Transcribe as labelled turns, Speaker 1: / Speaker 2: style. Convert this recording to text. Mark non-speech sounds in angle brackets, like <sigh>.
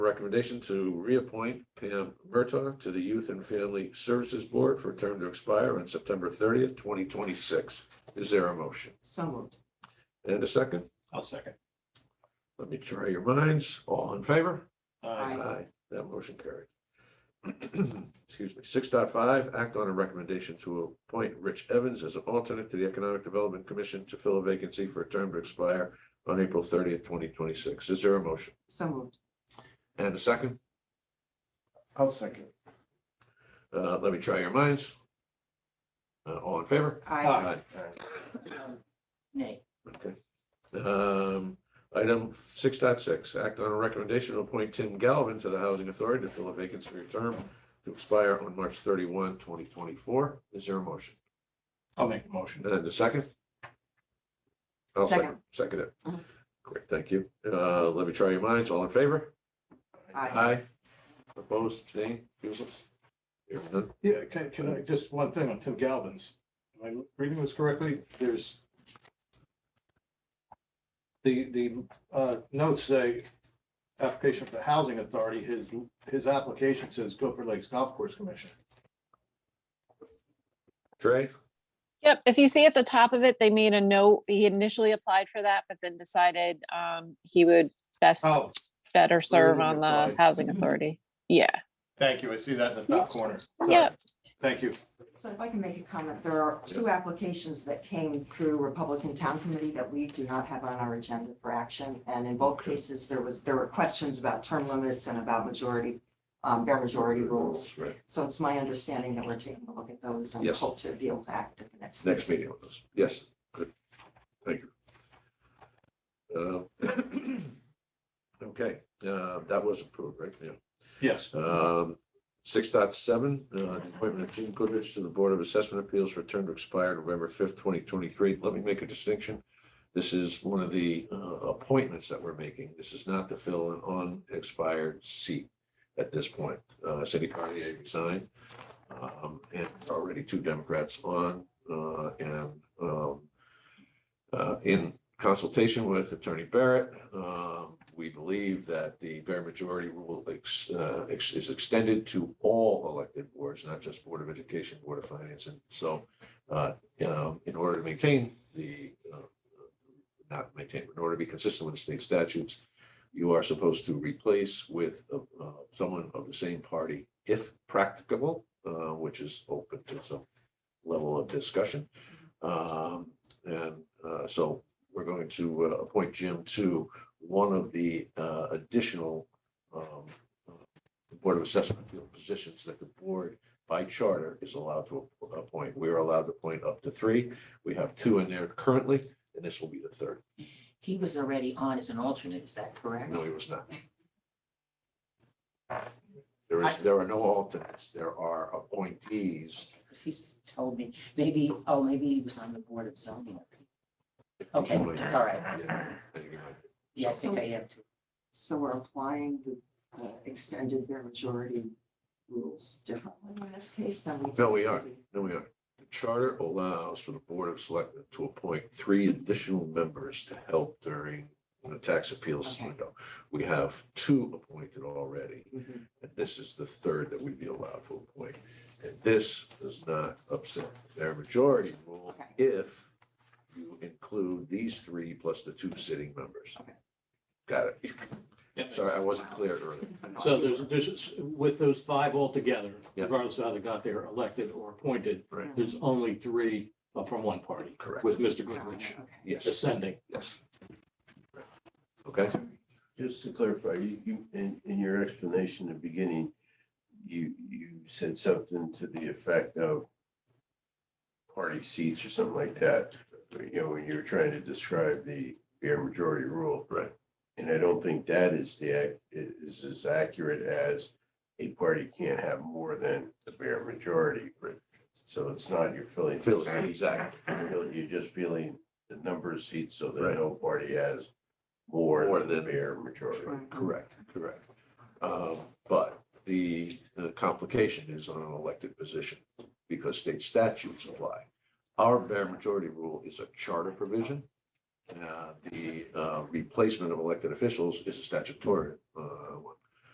Speaker 1: recommendation to reappoint Pam Murtaugh to the Youth and Family Services Board for a term to expire on September thirtieth, twenty twenty-six. Is there a motion?
Speaker 2: so moved,
Speaker 1: And a second?
Speaker 3: I'll second.
Speaker 1: Let me try your minds. All in favor?
Speaker 2: Aye.
Speaker 1: That motion carried. <clears throat> Excuse me. Six point five. act on a recommendation to appoint Rich Evans as an alternate to the Economic Development Commission to fill a vacancy for a term to expire on April thirtieth, twenty twenty-six. Is there a motion?
Speaker 2: so moved,
Speaker 1: And a second?
Speaker 3: I'll second.
Speaker 1: Uh, let me try your minds. Uh, all in favor?
Speaker 2: aye,
Speaker 3: Aye.
Speaker 1: Uh,
Speaker 2: nay,
Speaker 1: Okay. Um, item six point six. act on a recommendation to appoint Tim Galvin to the Housing Authority to fill a vacancy for a term to expire on March 31, 2024. Is there a motion?
Speaker 3: I'll make the motion.
Speaker 1: And the second? I'll second, second it.
Speaker 2: Mhm.
Speaker 1: Great, thank you. Uh, let me try your minds. All in favor?
Speaker 2: aye,
Speaker 1: Aye. Opposed, abstained, useless? Hearing none.
Speaker 3: Yeah, can, can I, just one thing on Tim Galvin's. Am I reading this correctly? There's the, the uh, notes say, application for the housing authority, his, his application says Gopher Lakes Golf Course Commission.
Speaker 1: Trey,
Speaker 4: Yep, if you see at the top of it, they made a note, he initially applied for that, but then decided um he would best,
Speaker 3: Oh,
Speaker 4: better serve
Speaker 3: he Mm-hmm.
Speaker 4: on the
Speaker 3: applied.
Speaker 4: housing authority. Yeah,
Speaker 3: thank you. I see that in the top corner. Sorry.
Speaker 4: Yep.
Speaker 3: Thank you.
Speaker 2: so if I can make a comment, there are two applications that came through Republican Town Committee that we do not have on our agenda for action, and in both cases, there was, there were questions about term limits and about majority, um, bare majority rules.
Speaker 1: right,
Speaker 2: So it's my understanding that we're taking a look at those and
Speaker 1: Yes.
Speaker 2: hope to be able to act at the next.
Speaker 1: next meeting on this. Yes, good. Thank you. Uh, <clears throat> Okay, uh, that was approved, right? Yeah.
Speaker 3: Yes.
Speaker 1: Um, six dot seven, uh, appointment of Jim Goodrich to the Board of Assessment Appeals for a term to expire November fifth, twenty twenty-three. Let me make a distinction. This is one of the, uh, appointments that we're making. This is not to fill an unexpired seat at this point. Uh, Cindy Cartier resigned. Um, and already two Democrats on, uh, and, um, uh, in consultation with Attorney Barrett, um, we believe that the bare majority rule ex- uh, ex- is extended to all elected boards, not just Board of Education, Board of Finance, and so uh, um, in order to maintain the, uh, not maintain, in order to be consistent with the state statutes, you are supposed to replace with uh, uh, someone of the same party, if practicable, uh, which is open to some level of discussion. Um, and uh, so we're going to uh, appoint Jim to one of the uh, additional um, uh, Board of Assessment Appeal positions that the board by charter is allowed to app- appoint. We are allowed to appoint up to three. We have two in there currently, and this will be the third.
Speaker 5: He was already on as an alternate, is that correct?
Speaker 1: No, he was not. There is, there are no alternates. There are appointees.
Speaker 5: Because he's told me, maybe, oh, maybe he was on the board of zoning. Okay, it's all right.
Speaker 1: Yeah, you might
Speaker 5: Yeah, I think I am too.
Speaker 2: So we're applying the uh, extended bare majority rules differently in this case than we.
Speaker 1: No, we are.
Speaker 2: typically-
Speaker 1: No, we are. The charter allows for the Board of Selectmen to appoint three additional members to help during the tax appeals
Speaker 2: Okay.
Speaker 1: window. We have two appointed already,
Speaker 2: Mhm.
Speaker 1: and this is the third that we'd be allowed to appoint. And this does not upset their majority rule
Speaker 2: Okay.
Speaker 1: if you include these three plus the two sitting members.
Speaker 2: Okay.
Speaker 1: Got it. Sorry, I wasn't clear earlier.
Speaker 3: So there's, there's, with those five altogether,
Speaker 1: Yeah.
Speaker 3: regardless of how they got there, elected or appointed,
Speaker 1: Right.
Speaker 3: there's only three uh, from one party.
Speaker 1: Correct.
Speaker 3: With Mr.
Speaker 2: Okay,
Speaker 3: Goodrich
Speaker 2: okay.
Speaker 1: Yes,
Speaker 3: ascending.
Speaker 1: yes. Okay.
Speaker 6: Just to clarify, you, you, in, in your explanation at the beginning, you, you said something to the effect of party seats or something like that, you know, when you were trying to describe the bare majority rule.
Speaker 1: Right.
Speaker 6: And I don't think that is the, ac- is as accurate as a party can't have more than the bare majority. Right. So it's not you're filling.
Speaker 1: Phil, exactly.
Speaker 6: You're you're just feeling the number of seats so
Speaker 1: Right.
Speaker 6: that no party has more
Speaker 1: More
Speaker 6: than the
Speaker 1: than-
Speaker 6: bare majority.
Speaker 1: Correct, correct. Um, But the the complication is on an elected position because state statutes apply. Our bare majority rule is a charter provision. Uh, The uh, replacement of elected officials is a statutory